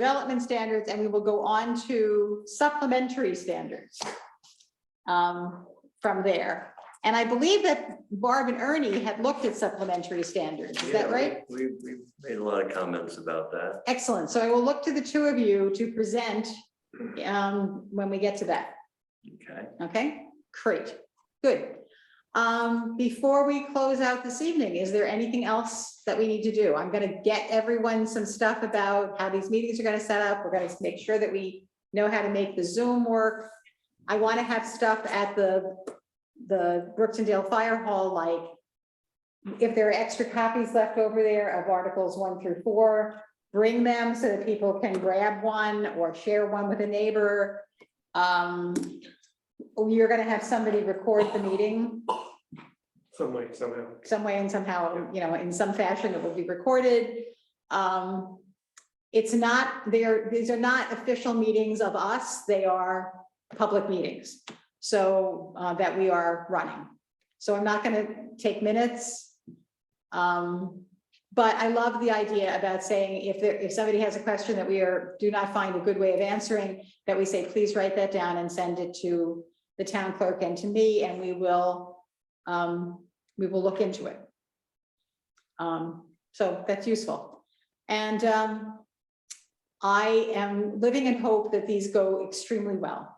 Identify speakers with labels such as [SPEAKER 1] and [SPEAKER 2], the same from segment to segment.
[SPEAKER 1] development standards, and we will go on to supplementary standards um, from there. And I believe that Barb and Ernie had looked at supplementary standards, is
[SPEAKER 2] Yeah,
[SPEAKER 1] that
[SPEAKER 2] we-
[SPEAKER 1] right?
[SPEAKER 2] We, we made a lot of comments about that.
[SPEAKER 1] Excellent, so I will look to the two of you to present um, when we get to that.
[SPEAKER 2] Okay,
[SPEAKER 1] Okay, great, good. Um, before we close out this evening, is there anything else that we need to do? I'm gonna get everyone some stuff about how these meetings are gonna set up. We're gonna make sure that we know how to make the Zoom work. I want to have stuff at the, the Brooksondale Fire Hall, like if there are extra copies left over there of Articles one through four, bring them so that people can grab one or share one with a neighbor. Um, you're gonna have somebody record the meeting
[SPEAKER 3] some way, somehow.
[SPEAKER 1] some way and somehow, you know, in some fashion, it will be recorded. Um, it's not, there, these are not official meetings of us, they are public meetings. So, uh, that we are running. So I'm not gonna take minutes. Um, but I love the idea about saying if there, if somebody has a question that we are, do not find a good way of answering, that we say, please write that down and send it to the town clerk and to me, and we will, um, we will look into it. Um, so that's useful. And, um, I am living in hope that these go extremely well.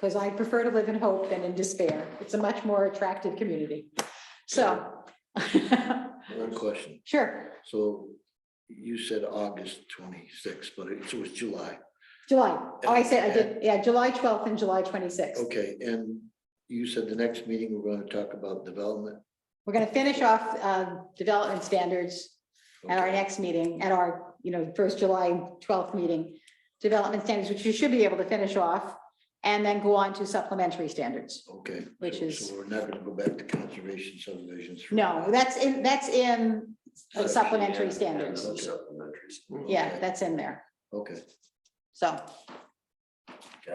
[SPEAKER 1] Cause I prefer to live in hope than in despair. It's a much more attractive community. So.
[SPEAKER 4] One question.
[SPEAKER 1] Sure,
[SPEAKER 4] So you said August twenty-sixth, but it so it's July.
[SPEAKER 1] July. Oh, I said, I did, yeah, July twelfth and July twenty-sixth.
[SPEAKER 4] Okay, and you said the next meeting, we're gonna talk about development.
[SPEAKER 1] We're gonna finish off, uh, development standards at our
[SPEAKER 4] Okay.
[SPEAKER 1] next meeting, at our, you know, first July twelfth meeting, development standards, which you should be able to finish off, and then go on to supplementary standards.
[SPEAKER 4] Okay.
[SPEAKER 1] Which
[SPEAKER 4] so-
[SPEAKER 1] is-
[SPEAKER 4] So we're not gonna go back to conservation subdivisions. for-
[SPEAKER 1] No, that's in, that's in the
[SPEAKER 2] Yeah,
[SPEAKER 1] supplementary
[SPEAKER 2] yeah,
[SPEAKER 1] standards.
[SPEAKER 2] those Supplementaries.
[SPEAKER 1] Yeah, that's in there.
[SPEAKER 4] Okay,
[SPEAKER 1] So,
[SPEAKER 4] gotcha.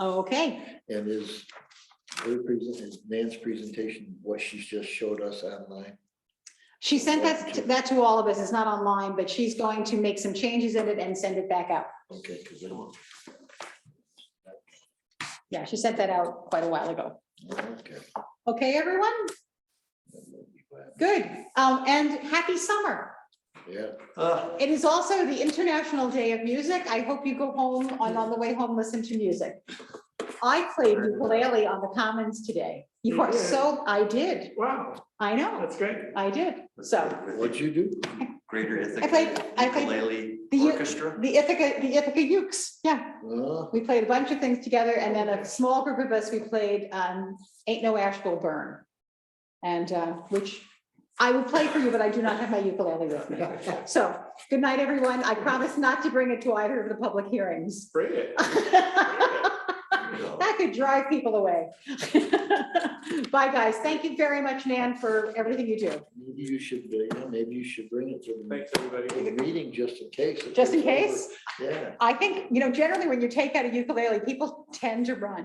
[SPEAKER 1] okay,
[SPEAKER 4] And is her present, is Nan's presentation, what she's just showed us online?
[SPEAKER 1] she sent that, to- that to all of us. It's not online, but she's going to make some changes in it and send it back out.
[SPEAKER 4] Okay, because I don't.
[SPEAKER 1] Yeah, she sent that out quite a while ago.
[SPEAKER 4] Okay.
[SPEAKER 1] Okay, everyone? Good. Um, and happy summer.
[SPEAKER 4] Yeah,
[SPEAKER 3] Uh,
[SPEAKER 2] Ah,
[SPEAKER 1] It is also the International Day of Music. I hope you go home and on the way home, listen to music. I played ukulele on the Commons today. You are so, I did.
[SPEAKER 3] Wow,
[SPEAKER 1] I know,
[SPEAKER 3] that's great.
[SPEAKER 1] I did. So
[SPEAKER 4] what'd you do?
[SPEAKER 2] Greater
[SPEAKER 1] I played-
[SPEAKER 2] Ithaca
[SPEAKER 1] I played
[SPEAKER 2] Ukulele
[SPEAKER 1] the-
[SPEAKER 2] Orchestra.
[SPEAKER 1] the Ithaca, the Ithaca Ukes, yeah.
[SPEAKER 4] Uh,
[SPEAKER 1] We played a bunch of things together and then a small group of us, we played um, Ain't No Ash Will Burn. And uh, which I would play for you, but I do not have my ukulele with me. So good night, everyone. I promise not to bring it to either of the public hearings.
[SPEAKER 3] Bring it.
[SPEAKER 1] That
[SPEAKER 2] No.
[SPEAKER 1] could drive people away. Bye, guys. Thank you very much, Nan, for everything you do.
[SPEAKER 4] Maybe you should, uh, yeah, maybe you should bring it to the
[SPEAKER 3] Thanks, everybody.
[SPEAKER 4] in the meeting, just in case. if
[SPEAKER 1] Just in
[SPEAKER 4] it's over.
[SPEAKER 1] case,
[SPEAKER 4] Yeah.
[SPEAKER 1] I think, you know, generally when you take out a ukulele, people tend to run.